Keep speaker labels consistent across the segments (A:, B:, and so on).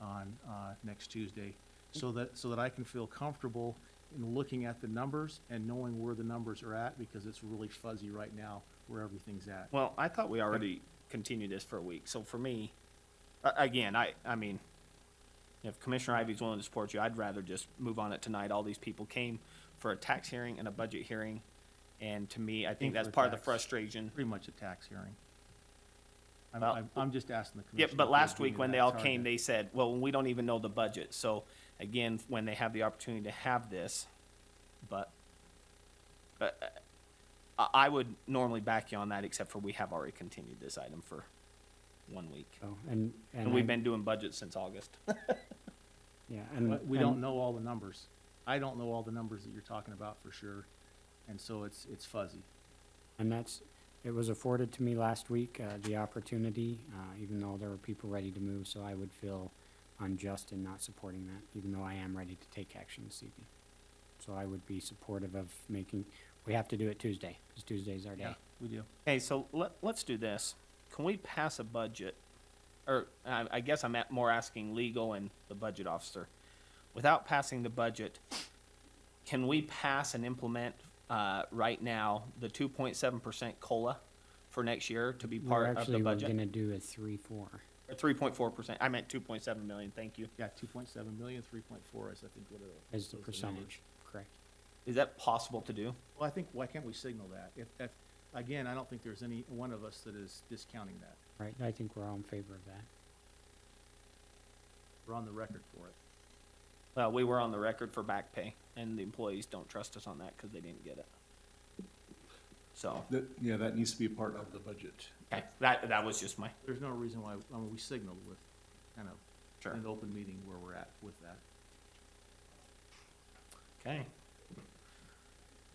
A: on, uh, next Tuesday, so that, so that I can feel comfortable in looking at the numbers and knowing where the numbers are at, because it's really fuzzy right now where everything's at.
B: Well, I thought we already continued this for a week, so for me, a- again, I, I mean, if Commissioner Ivy's willing to support you, I'd rather just move on it tonight. All these people came for a tax hearing and a budget hearing, and to me, I
A: Came
B: think that's
A: for
B: part of the
A: tax.
B: frustration.
A: Pretty much a tax hearing. I'm,
B: Well-
A: I'm, I'm just asking the
B: Yep,
A: commission.
B: but last week when they all came, they said, well, we don't even know the budget, so again, when they have the opportunity to have this, but, but uh, I, I would normally back you on that, except for we have already continued this item for one week.
C: So, and, and.
B: And we've
C: I-
B: been doing budgets since August.
C: Yeah, and.
A: We don't
C: and-
A: know all the numbers. I don't know all the numbers that you're talking about for sure, and so it's, it's fuzzy.
C: And that's, it was afforded to me last week, uh, the opportunity, uh, even though there were people ready to move, so I would feel unjust in not supporting that, even though I am ready to take action this evening. So I would be supportive of making, we have to do it Tuesday, because Tuesday's our
A: Yeah,
C: day.
A: we do.
B: Okay, so let, let's do this. Can we pass a budget? Or I, I guess I'm at more asking legal and the budget officer. Without passing the budget, can we pass and implement, uh, right now, the two point seven percent COLA for next year to be part of the
C: We're actually, we're
B: budget?
C: gonna do a three, four.
B: Or three point four percent, I meant two point seven million, thank you.
A: Yeah, two point seven million, three point four is, I think, what are.
C: As
A: those are
C: the
A: numbers.
C: percentage, correct?
B: Is that possible to do?
A: Well, I think, why can't we signal that? If, if, again, I don't think there's any one of us that is discounting that.
C: Right, I think we're all in favor of that.
A: We're on the record for it.
B: Well, we were on the record for back pay, and the employees don't trust us on that because they didn't get it. So,
D: That, yeah, that needs to be part of the budget.
B: okay, that, that was just my,
A: There's no reason why, I mean, we signaled with, kind of,
B: sure.
A: in an open meeting where we're at with that.
B: Okay.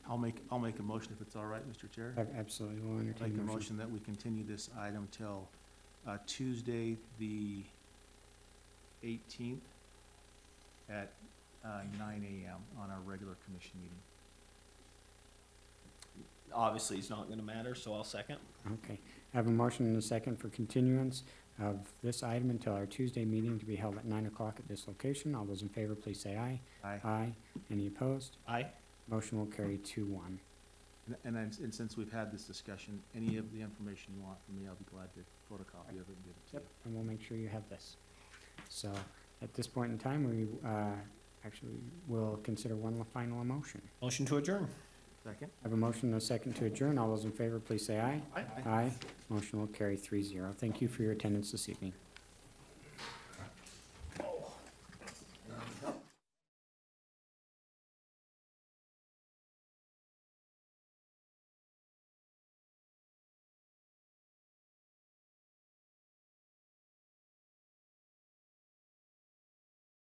A: I'll make, I'll make a motion if it's all right, Mr. Chair.
C: Ab- Absolutely, we'll
A: Make
C: entertain
A: a
C: the
A: motion that we continue this item till uh, Tuesday, the eighteenth at uh, nine AM on our regular commission meeting.
B: Obviously, it's not gonna matter, so I'll second.
C: Okay, I have a motion and a second for continuance of this item until our Tuesday meeting to be held at nine o'clock at this location. All those in favor, please say aye.
A: Aye.
C: Aye. Any opposed?
B: Aye.
C: Motion will carry two one.
A: And- And then, and since we've had this discussion, any of the information you want from me, I'll be glad to photocopy of it and give it to you.
C: And we'll make sure you have this. So at this point in time, we, uh, actually will consider one final motion.
B: Motion to adjourn.
A: Second?
C: I have a motion and a second to adjourn. All those in favor, please say aye.
B: Aye.
C: Aye. Motion will carry three zero. Thank you for your attendance this evening.